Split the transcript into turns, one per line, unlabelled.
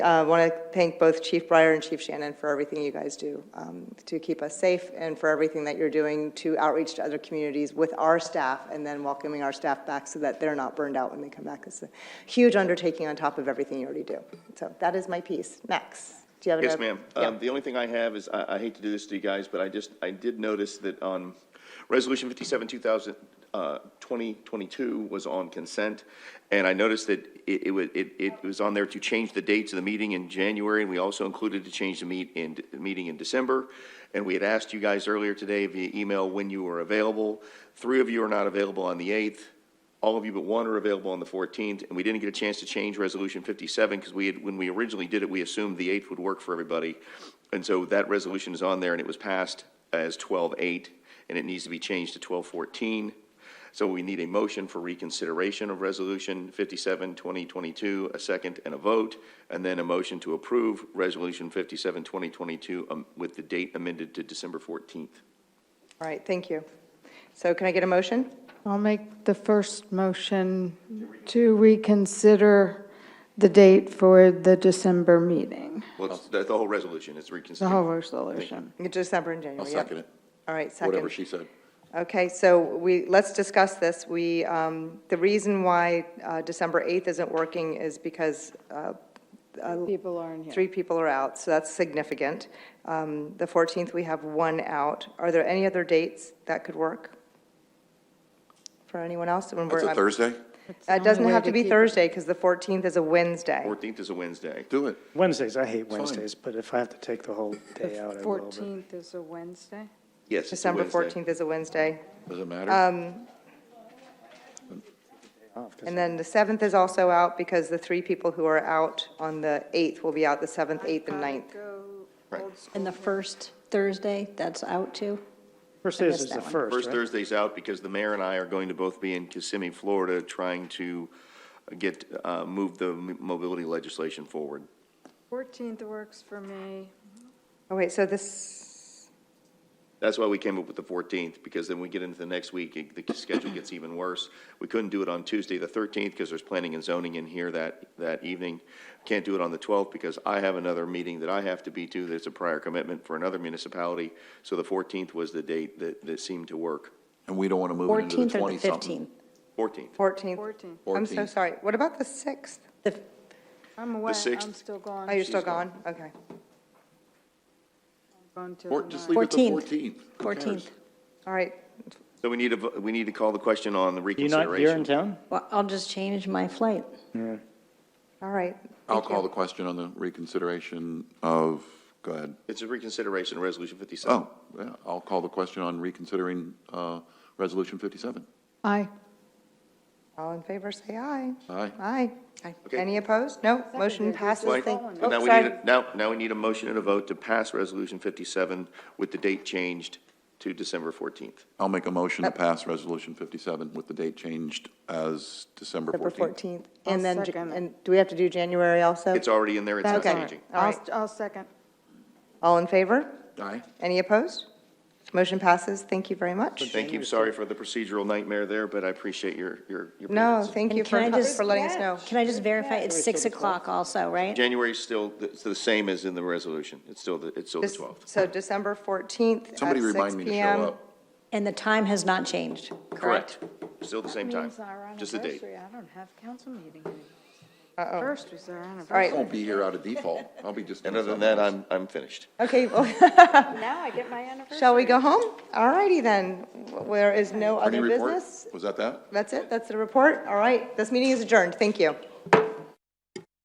I want to Uh, thank both Chief Breyer and Chief Shannon for everything you guys do um, to keep us safe and for everything that you're doing to outreach to other communities with our staff and then welcoming our staff back so that they're not burned out when they come back. It's a huge undertaking on top of everything you already do. So that is my piece. Max, do you have?
Yes,
another-
ma'am.
Yeah.
Um, The only thing I have is, I I hate to do this to you guys, but I just, I did notice that on Resolution 57, 2000, uh, 2022 was on consent, and I noticed that it, it wa- it- it was on there to change the dates of the meeting in January, and we also included to change the meet, in, the meeting in December. And we had asked you guys earlier today via email when you were available. Three of you are not available on the 8th. All of you but one are available on the 14th, and we didn't get a chance to change Resolution 57 because we had, when we originally did it, we assumed the 8th would work for everybody. And so that resolution is on there, and it was passed as 12-8, and it needs to be changed to 12-14. So we need a motion for reconsideration of Resolution 57, 2022, a second and a vote, and then a motion to approve Resolution 57, 2022 um, with the date amended to December 14th.
All right, thank you. So can I get a motion?
I'll make the first motion to reconsider the date for the December meeting,
Well, it's- the the whole resolution is
the whole
reconsidered.
resolution.
December and January.
I'll
yeah.
second it,
All right, second.
whatever she said.
Okay, so we, let's discuss this. We, um, the reason why uh, December 8th isn't working is because uh,
People aren't here.
three people are out, so that's significant. Um, The 14th, we have one out. Are there any other dates that could work for anyone else? When
That's
we're-
a Thursday?
It doesn't have to be Thursday, because the 14th is a Wednesday.
14th is a Wednesday.
Do it.
Wednesdays, I hate Wednesdays, but if I have to take the whole day out, I will. but-
14th is a Wednesday?
Yes, it's a
December
Wednesday.
14th is a Wednesday.
Does it matter?
And then the 7th is also out, because the three people who are out on the 8th will be out the 7th, 8th, and 9th.
And the first Thursday, that's out too?
First day is
missed
the
that one.
first,
First
right?
Thursday's out because the mayor and I are going to both be in Kissimmee, Florida, trying to get, uh, move the m- mobility legislation forward.
14th works for me.
Oh, wait, so this,
That's why we came up with the 14th, because then we get into the next week, it- the schedule gets even worse. We couldn't do it on Tuesday, the 13th, because there's planning and zoning in here that, that evening. Can't do it on the 12th, because I have another meeting that I have to be to, that's a prior commitment for another municipality. So the 14th was the date that, that seemed to work.
And we don't want to move it into the
14th or the
20-something.
15th?
14th.
14th?
14th.
I'm so
14th.
sorry. What about the 6th?
The-
I'm away, I'm
sixth.
still
Oh,
gone,
you're still gone? Okay.
gone till
Or
the
just
ninth.
leave it to 14.
14th.
Who
14th.
cares?
All right.
So we need to, vo- we need to call the question on the
You not, you're in
reconsideration.
town?
Well, I'll just change my flight.
All right.
I'll
Thank you.
call the question on the reconsideration of, go ahead.
It's a reconsideration, Resolution 57.
Oh, yeah, I'll call the question on reconsidering uh, Resolution 57.
Aye.
All in favor, say aye.
Aye.
Aye. Aye.
Okay.
Any opposed? No, motion
Seconded.
passes.
Right.
Thank-
So
Oh,
now we
sorry.
need, a- now, now we need a motion and a vote to pass Resolution 57 with the date changed to December 14th.
I'll make a motion to pass Resolution 57 with the date changed as December
November
14th.
14th.
I'll
And then,
second that.
and do we have to do January also?
It's already in there, it's not
Okay.
changing.
All
I'll,
right.
I'll second.
All in favor?
Aye.
Any opposed? Motion passes. Thank you very much.
Thank you, sorry for the procedural nightmare there, there, but I appreciate your, your. your
No,
patience.
thank you
And
for,
can I just-
for letting us know.
Can I just verify, it's 6 o'clock also, right?
January's still, it's the same as in the resolution, it's still, the it's still the
This-
12th.
So December 14th at 6 PM.
Somebody remind me to show up.
And the time has not changed, correct?
Still the same time,
Means our
just the date.
anniversary, I don't have council meeting anymore. First was our anniversary.
I won't be here out of default. I'll be just.
And
doing
other than that,
something else.
I'm, I'm finished.
Okay, well,
Now I get my anniversary.
shall we go home? All righty then. There is no
Any
other
report?
business.
Was that that?
That's it? That's the report? All right. This meeting is adjourned. Thank you.